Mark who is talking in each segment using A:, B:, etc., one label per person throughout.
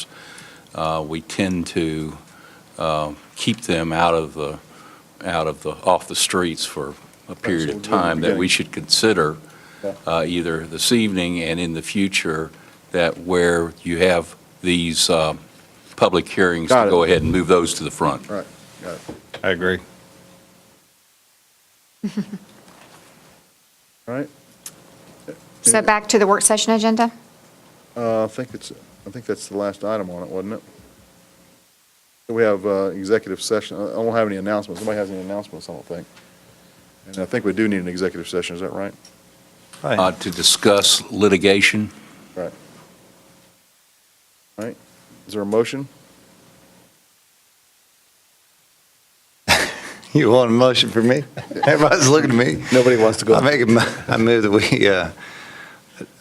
A: programs, uh, we tend to uh, keep them out of the, out of the, off the streets for a period of
B: what we're
A: time that we
B: getting.
A: should consider,
B: Yeah.
A: uh, either this evening and in the future, that where you have these um, public hearings,
B: Got
A: to
B: it.
A: go ahead and move those to the front.
B: Right, got it.
C: I agree.
B: All right,
D: So back to the work session agenda?
B: uh, I think it's, I think that's the last item on it, wasn't it? We have uh, executive session, I I don't have any announcements, nobody has any announcements, I don't think. And I think we do need an executive session, is that right?
A: Uh, To discuss litigation,
B: Right. All right, is there a motion?
C: You want a motion for me? Everybody's looking at me.
B: Nobody wants to
C: I make, a mo- I move that we uh,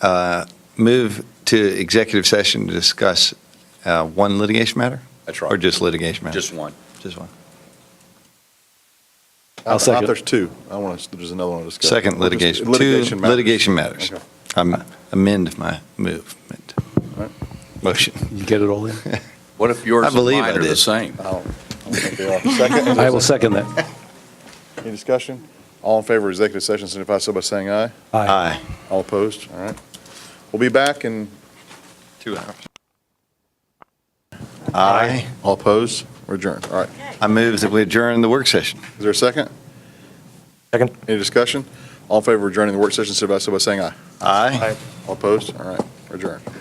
C: uh, move to executive session to discuss uh, one litigation matter?
A: That's right.
C: Or just litigation matter?
A: just one.
C: Just one.
B: I- I
E: I'll
B: thought
E: second.
B: There's two, I want to, there's another one to discuss.
C: Second
B: We'll just-
C: litigation.
B: Litigation
C: Two
B: matters.
C: litigation matters.
B: Okay.
C: I amend my movement.
B: All right.
C: Motion.
E: You get it all in?
A: What if yours
C: I
A: and
C: believe
A: mine
C: I
A: are the
C: did.
A: same?
B: I don't, I don't think they are. Second,
E: I will second that.
B: any discussion? All in favor of executive session, signify so by saying aye.
C: Aye.
B: All opposed? All right. We'll be back in,
C: Two hours. Aye.
B: all opposed? We're adjourned. All right.
C: I move that we adjourn the work session.
B: Is there a second?
E: Second.
B: Any discussion? All in favor of adjourning the work session, signify so by saying aye.
C: Aye.
B: All opposed? All right. We're adjourned.